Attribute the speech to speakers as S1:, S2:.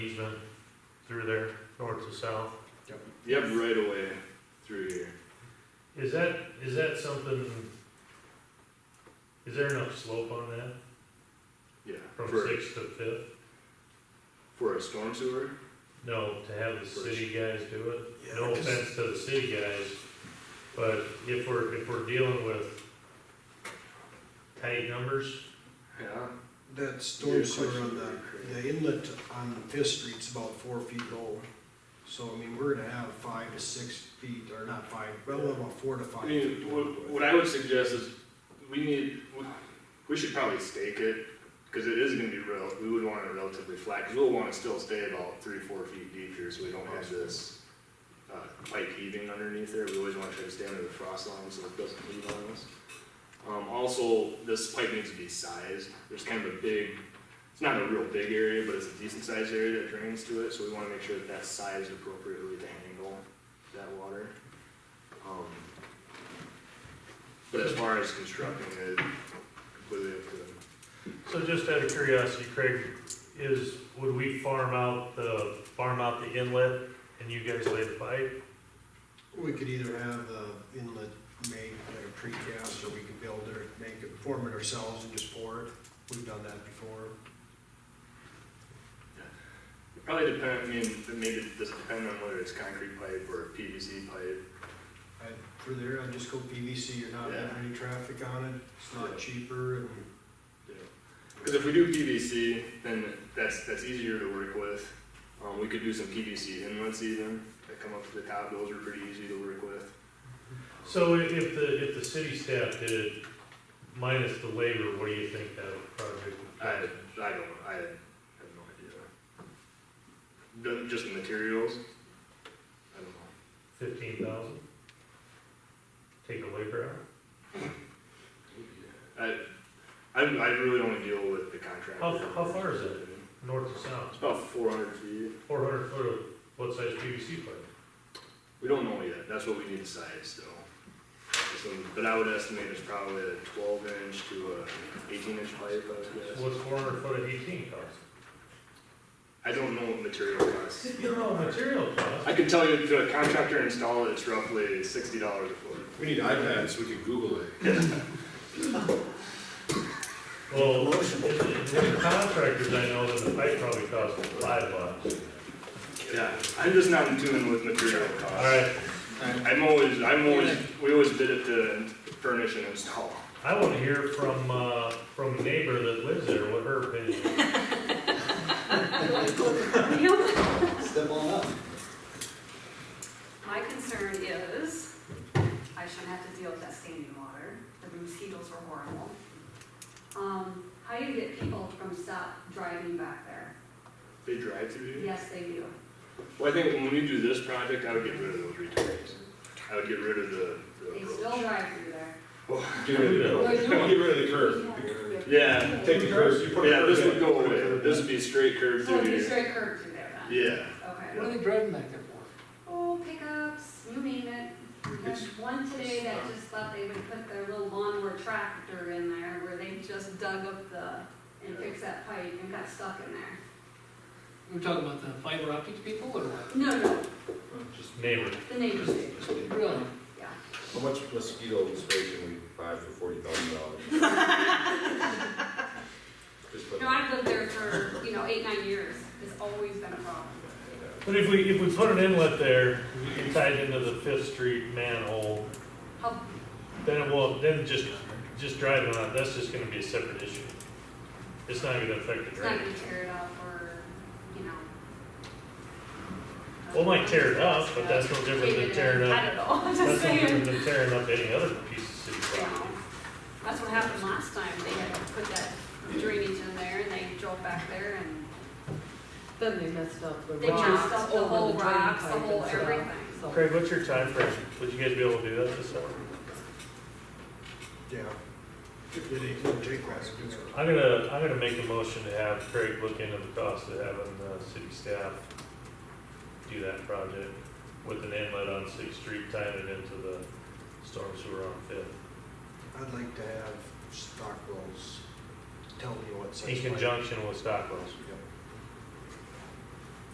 S1: easement through there, north to south.
S2: You have right away through here.
S1: Is that, is that something, is there enough slope on that
S2: Yeah.
S1: from
S2: for,
S1: sixth to fifth?
S2: for a storm sewer?
S1: No, to have the
S2: For-
S1: city guys do it?
S3: Yeah,
S1: No
S3: 'cause-
S1: offense to the city guys, but if we're, if we're dealing with tight numbers,
S2: Yeah.
S3: That
S2: Your
S3: storm sewer
S2: question
S3: on
S2: would be
S3: the,
S2: correct.
S3: the inlet on Fifth Street's about four feet low. So, I mean, we're gonna have five to six feet, or not five, well, about four to five
S2: I
S3: feet.
S2: mean, what, what I would suggest is we need, we- we should probably stake it, cause it is gonna be real, we would want it relatively flat, cause we'll wanna still stay about three, four feet deep here, so we don't have this uh, pipe heaving underneath there, we always wanna try to stay under the frost line, so it doesn't heave on us. Um, also, this pipe needs to be sized, there's kind of a big, it's not a real big area, but it's a decent sized area that drains to it, so we wanna make sure that that's sized appropriately to handle that water. Um, but as far as constructing it, completely up to them.
S1: So just out of curiosity, Craig, is, would we farm out the, farm out the inlet and you guys lay the pipe?
S3: We could either have the inlet made like a precast, or we could build it, make it, form it ourselves and just pour it. We've done that before.
S2: It Probably depend, I mean, it maybe does depend on whether it's concrete pipe or PVC pipe.
S3: I, for there, I'd just go PVC, you're not
S2: Yeah.
S3: having any traffic on it, it's
S2: Yeah.
S3: not cheaper, and
S2: Because if we do PVC, then that's, that's easier to work with. Um, we could do some PVC inlets even that come up to the top, those are pretty easy to work with.
S1: So i- if the, if the city staff did it minus the labor, what do you think that project
S2: I, I
S1: would
S2: don't, I have no idea. Don't- Just the materials? I don't know.
S1: cost? Fifteen thousand? Take the labor out?
S2: I, I, I really only deal with the contractor.
S1: How- how far is it? North to south,
S2: It's about four hundred feet.
S1: four hundred foot of what size PVC pipe?
S2: We don't know yet, that's what we need to size, so. So, But I would estimate it's probably a twelve inch to a eighteen inch pipe, I would guess.
S1: What's four hundred foot of eighteen cost?
S2: I don't know what material costs.
S1: You know, material cost.
S2: I can tell you to a contractor to install it, it's roughly sixty dollars a foot.
S4: We need iPads, we can Google it.
S1: Well, with the contractors, I know that the pipe probably costs five bucks.
S2: Yeah, I'm just not in tune with material costs.
S1: All right,
S2: I'm always, I'm always, we always bid it to furnish and install.
S1: I want to hear from, uh, from a neighbor that lives there, what her opinion is.
S5: Step on up.
S6: My concern is, I shouldn't have to deal with that standing water, the mosquitoes are horrible. Um, how do you get people from stop driving back there?
S2: They drive through here?
S6: Yes, they do.
S2: Well, I think when we do this project, I would get rid of those returns. I would get rid of the,
S6: They
S2: the
S6: still
S2: approach.
S6: drive through there.
S4: Get rid of
S6: They're
S4: the curb.
S6: doing
S4: Get rid of the curb.
S6: it.
S2: Yeah,
S4: Take the curb, you put a
S2: yeah,
S4: curb
S2: this
S4: in.
S2: would go away. This would be straight curve
S6: So
S2: through
S6: Oh, you
S2: here.
S6: straight curb through there then?
S2: Yeah,
S6: Okay.
S5: What are they driving back there for?
S6: Oh, pickups, you name it. We had one today that just thought they would put their little lawnmower tractor in there where they just dug up the, and fixed that pipe and got stuck in there.
S5: We're talking about the fiber optic people or what?
S6: No, no,
S1: Just neighbor.
S6: the neighbors do,
S5: Really?
S6: yeah.
S7: How much mosquito spray can we buy for forty thousand dollars? Just put,
S6: No, I've lived there for, you know, eight, nine years, it's always been a problem.
S1: But if we, if we put an inlet there, we can tie it into the Fifth Street manhole,
S6: How,
S1: then it will, then just, just driving on, it, that's just gonna be a separate issue. It's not gonna affect the
S6: it's not
S1: drainage.
S6: gonna tear it up or, you know.
S1: Well, it might tear it up, but that's no different than tearing
S6: I
S1: up,
S6: don't know, I'm
S1: that's
S6: just
S1: no
S6: saying,
S1: different than tearing up any other piece of city
S6: you know.
S1: property.
S6: That's what happened last time, they had put that drainage in there and they drove back there and
S8: Then they messed up the
S6: they messed
S8: rocks
S6: up the
S8: over
S6: whole
S8: the drain
S6: rocks, the
S8: pipe
S6: whole
S8: and
S6: everything.
S8: stuff. So-
S1: Craig, what's your time frame? Would you guys be able to do that this summer?
S3: Yeah. It ain't gonna take long to do it.
S1: I'm gonna, I'm gonna make a motion to have Craig look into the cost of having the city staff do that project with an inlet on Sixth Street, tying it into the storm sewer on Fifth,
S3: I'd like to have Stockwell's tell me what such.
S1: in
S3: pipe-
S1: conjunction with Stockwell's.